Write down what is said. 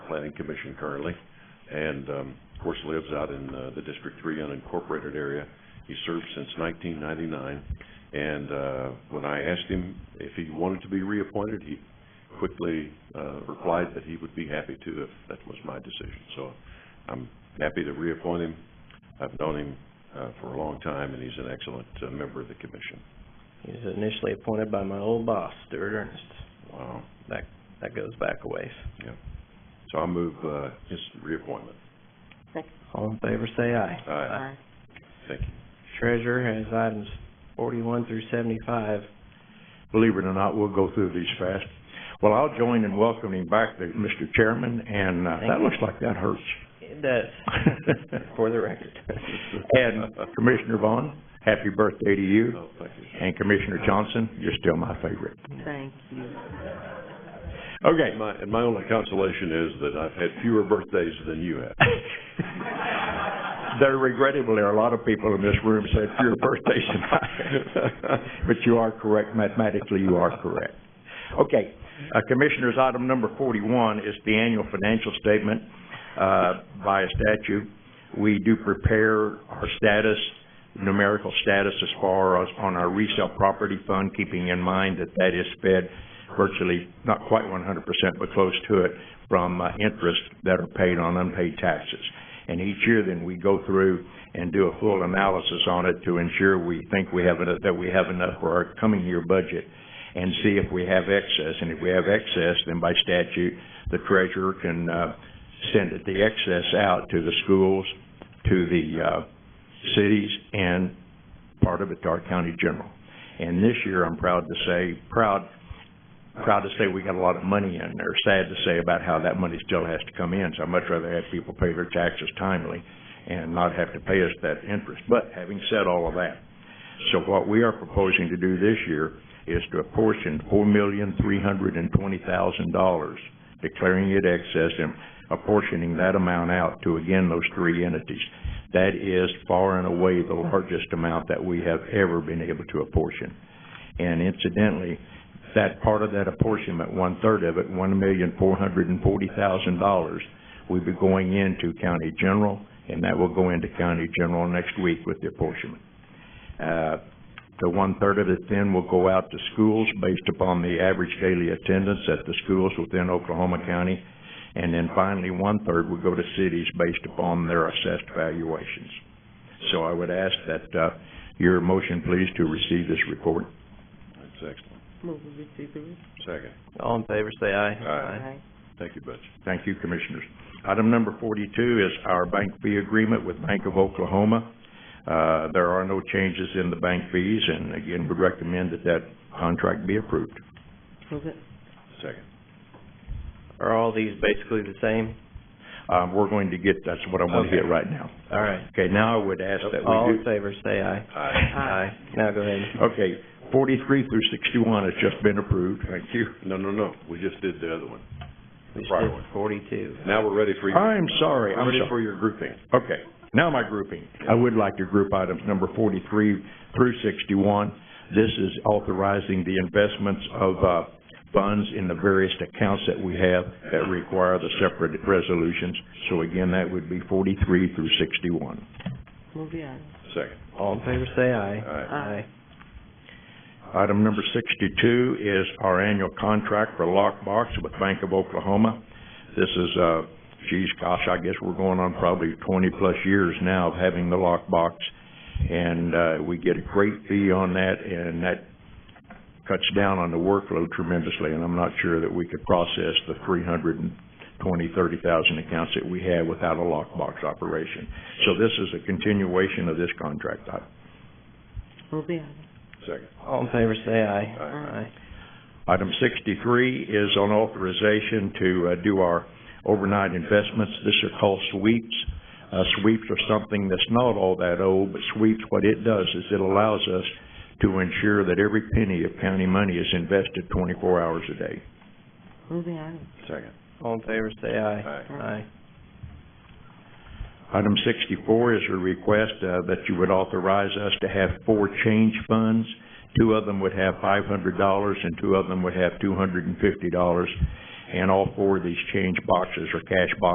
Planning Commission currently, and, um, of course, lives out in, uh, the District Three unincorporated area. He served since nineteen ninety-nine, and, uh, when I asked him if he wanted to be reappointed, he quickly, uh, replied that he would be happy to if that was my decision. So I'm happy to reappoint him. I've known him, uh, for a long time, and he's an excellent, uh, member of the commission. He was initially appointed by my old boss, Stuart Ernest. Wow. That goes back a ways. So I move, uh, his reappointment. All in favor, say aye. Aye. Thank you. Treasurer has items forty-one through seventy-five. Believe it or not, we'll go through these fast. Well, I'll join in welcoming back the, Mr. Chairman, and, uh, Thank that you. looks like that hurts. It does, for the record. And Commissioner Vaughn, happy birthday to you, Oh, thank you. and Commissioner Johnson, you're still my favorite. Thank you. Okay. And my, and my only consolation is that I've had fewer birthdays than you have. They're regrettable, there are a lot of people in this room said, your birthday's tonight. But you are correct, mathematically, you are correct. Okay, uh, Commissioners, item number forty-one is the annual financial statement, uh, by statute. We do prepare our status, numerical status as far as on our resale property fund, keeping in mind that that is fed virtually, not quite one hundred percent, but close to it, from, uh, interest that are paid on unpaid taxes. And each year, then, we go through and do a full analysis on it to ensure we think we have enough, that we have enough for our coming year budget, and see if we have excess. And if we have excess, then by statute, the treasurer can, uh, send the excess out to the schools, to the, uh, cities, and part of it to our county general. And this year, I'm proud to say, proud, proud to say we got a lot of money in there. Sad to say about how that money still has to come in, so I'd much rather have people pay their taxes timely and not have to pay us that interest. But having said all of that, so what we are proposing to do this year is to apportion four million, three hundred and twenty thousand dollars, declaring it excess and apportioning that amount out to, again, those three entities. That is far and away the largest amount that we have ever been able to apportion. And incidentally, that part of that apportionment, one-third of it, one million, four hundred and forty thousand dollars, will be going into county general, and that will go into county general next week with the apportionment. Uh, the one-third of it then will go out to schools based upon the average daily attendance at the schools within Oklahoma County. And then finally, one-third will go to cities based upon their assessed valuations. So I would ask that, uh, your motion please to receive this report. That's excellent. Move we receive the re- Second. All in favor, say aye. Aye. Thank you, Butch. Thank you, Commissioners. Item number forty-two is our bank fee agreement with Bank of Oklahoma. Uh, there are no changes in the bank fees, and again, we recommend that that contract be approved. Move it. Second. Are all these basically the same? Um, we're going to get, that's what I want to get right now. All right. Okay, now I would ask that All we in do, favor, say aye. Aye. Aye. Now go ahead. okay, forty-three through sixty-one has just been approved, thank you. No, no, no, we just did the other one. We just Right did one. forty-two. Now we're ready for your, I'm sorry, we're I'm ready sorry. for your grouping. Okay, now my grouping. I would like to group items number forty-three through sixty-one. This is authorizing the investments of, uh, funds in the various accounts that we have that require the separate resolutions. So again, that would be forty-three through sixty-one. Move the item. Second. All in favor, say aye. Aye. Aye. Item number sixty-two is our annual contract for lockbox with Bank of Oklahoma. This is, uh, geez, gosh, I guess we're going on probably twenty-plus years now of having the lockbox. And, uh, we get a great fee on that, and that cuts down on the workload tremendously. And I'm not sure that we could process the three hundred and twenty, thirty thousand accounts that we have without a lockbox operation. So this is a continuation of this contract item. Move the item. Second. All in favor, say aye. Aye. Item sixty-three is on authorization to uh, do our overnight investments. This are called sweeps. Uh, Sweeps are something that's not all that old, but sweeps, what it does is it allows us to ensure that every penny of county money is invested twenty-four hours a day. Move the item. Second. All in favor, say aye. Aye. Aye. Item sixty-four is a request uh, that you would authorize us to have four change funds. Two of them would have five hundred dollars and two of them would have two hundred and fifty dollars. and all four of these change boxes are cash boxes